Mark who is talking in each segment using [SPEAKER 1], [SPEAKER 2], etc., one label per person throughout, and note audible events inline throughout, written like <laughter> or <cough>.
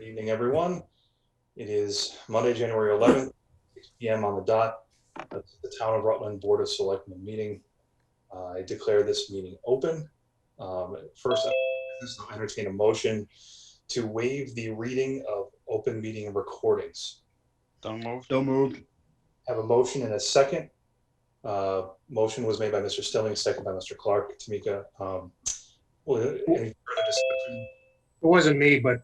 [SPEAKER 1] evening, everyone. It is Monday, January 11th, 6 PM on the dot. That's the Town of Rutland Board of Selectmen meeting. Uh, I declare this meeting open. Um, First, I entertain a motion to waive the reading of open meeting recordings.
[SPEAKER 2] Don't move.
[SPEAKER 3] So moved.
[SPEAKER 1] Have a motion and a second. Uh, Motion was made by Mr. Stelling, second by Mr. Clark. Tamika, um, well, any further discussion?
[SPEAKER 4] It wasn't me, but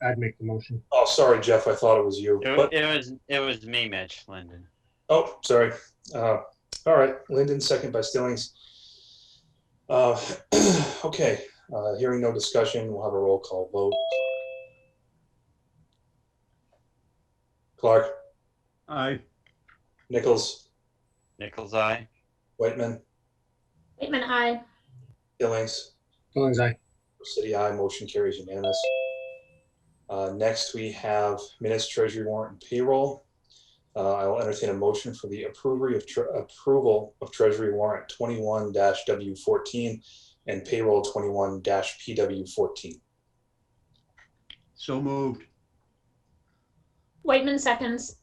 [SPEAKER 4] I- I'd make the motion.
[SPEAKER 1] Oh, sorry, Jeff, I thought it was you.
[SPEAKER 2] It, wa-
[SPEAKER 1] But-
[SPEAKER 2] it was it was me, Mitch Linden.
[SPEAKER 1] Oh, sorry. Uh, all right, Linden, second by Stillings. Uh, <clears throat> okay, uh, hearing no discussion, we'll have a roll call vote. Clark,
[SPEAKER 3] Aye.
[SPEAKER 1] Nichols,
[SPEAKER 2] Nichols Eye.
[SPEAKER 1] Whitman,
[SPEAKER 5] Waitman, aye.
[SPEAKER 1] Stillings,
[SPEAKER 4] Stillings, aye.
[SPEAKER 1] City I, motion carries unanimous. Uh, next, we have minutes, treasury warrant, and payroll. Uh, I will entertain a motion for the approvery of tr- approval of treasury warrant twenty-one W fourteen and payroll twenty-one PW fourteen.
[SPEAKER 3] So moved.
[SPEAKER 5] Waitman seconds.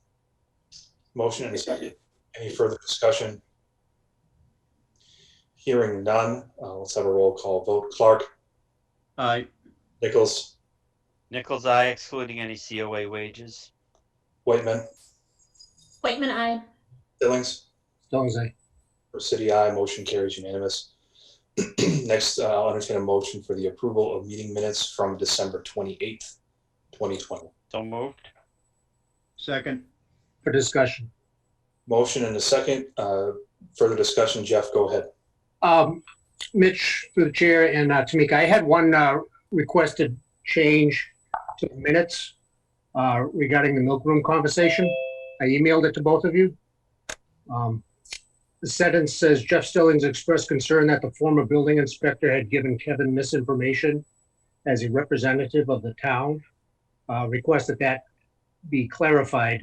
[SPEAKER 1] Motion and a second. Any further discussion? Hearing none, uh, let's have a roll call vote. Clark,
[SPEAKER 3] Aye.
[SPEAKER 1] Nichols,
[SPEAKER 2] Nichols Eye, excluding any COA wages.
[SPEAKER 1] Whitman,
[SPEAKER 5] Waitman, aye.
[SPEAKER 1] Billings.
[SPEAKER 4] Stillings, aye.
[SPEAKER 1] For City I, motion carries unanimous. <clears throat> Next, uh, I'll entertain a motion for the approval of meeting minutes from December twenty-eighth, twenty twenty.
[SPEAKER 2] Don't move.
[SPEAKER 3] Second.
[SPEAKER 4] For discussion.
[SPEAKER 1] Motion and a second. Uh, Further discussion, Jeff, go ahead.
[SPEAKER 4] Um, Mitch, through the chair, and uh, Tamika, I had one uh, requested change to the minutes uh, regarding the milkroom conversation. I emailed it to both of you. Um, The sentence says Jeff Stillings expressed concern that the former building inspector had given Kevin misinformation as a representative of the town. Uh, Request that that be clarified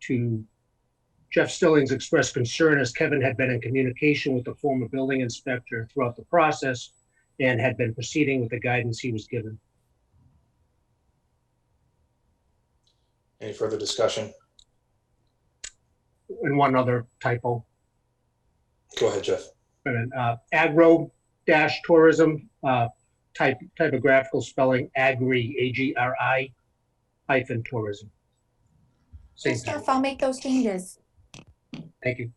[SPEAKER 4] to Jeff Stillings expressed concern as Kevin had been in communication with the former building inspector throughout the process and had been proceeding with the guidance he was given.
[SPEAKER 1] Any further discussion?
[SPEAKER 4] And one other typo,
[SPEAKER 1] Go ahead, Jeff.
[SPEAKER 4] and, uh, agro dash tourism, uh, type, typographical spelling, agri, A-G-R-I hyphen tourism. Same
[SPEAKER 6] Good
[SPEAKER 4] thing.
[SPEAKER 6] stuff. I'll make those changes.
[SPEAKER 4] Thank you.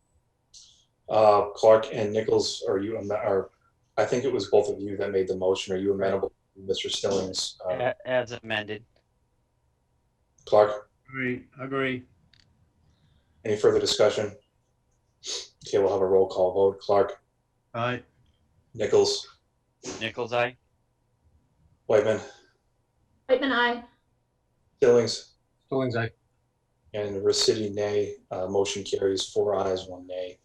[SPEAKER 1] Uh, Clark and Nichols, are you, am- are, I think it was both of you that made the motion. Are you amenable to Mr. Stillings? Uh,
[SPEAKER 2] A- As amended.
[SPEAKER 1] Clark,
[SPEAKER 3] Agree. Agree.
[SPEAKER 1] any further discussion? Okay, we'll have a roll call vote. Clark,
[SPEAKER 3] Aye.
[SPEAKER 1] Nichols,
[SPEAKER 2] Nichols Eye.
[SPEAKER 1] Whitman,
[SPEAKER 5] Waitman, aye.
[SPEAKER 1] Stillings.
[SPEAKER 4] Stillings, aye.
[SPEAKER 1] And Resity nay. Uh, motion carries four ayes, one nay.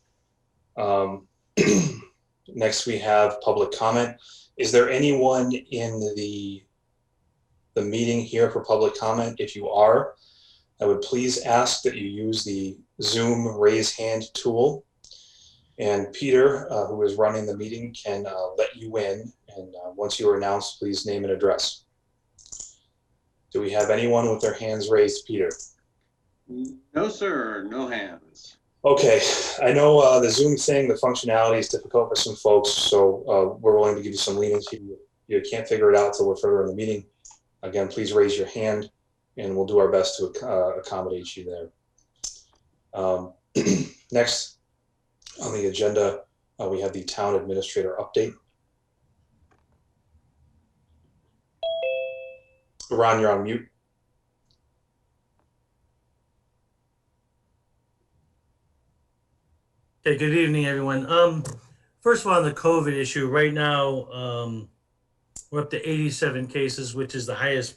[SPEAKER 1] Um, <clears throat> next, we have public comment. Is there anyone in the the meeting here for public comment? If you are, I would please ask that you use the Zoom raise hand tool. And Peter, uh, who is running the meeting, can uh, let you in. And uh, once you are announced, please name and address. Do we have anyone with their hands raised, Peter?
[SPEAKER 7] No, sir, no hands.
[SPEAKER 1] Okay, I know uh, the Zoom thing, the functionality is difficult for some folks, so uh, we're willing to give you some leniency. You can't figure it out till we're further in the meeting. Again, please raise your hand, and we'll do our best to ac- uh, accommodate you there. Um, <clears throat> next on the agenda, uh, we have the town administrator update. Ron, you're on mute.
[SPEAKER 8] Okay, good evening, everyone. Um, first of all, on the COVID issue, right now, um, we're up to eighty-seven cases, which is the highest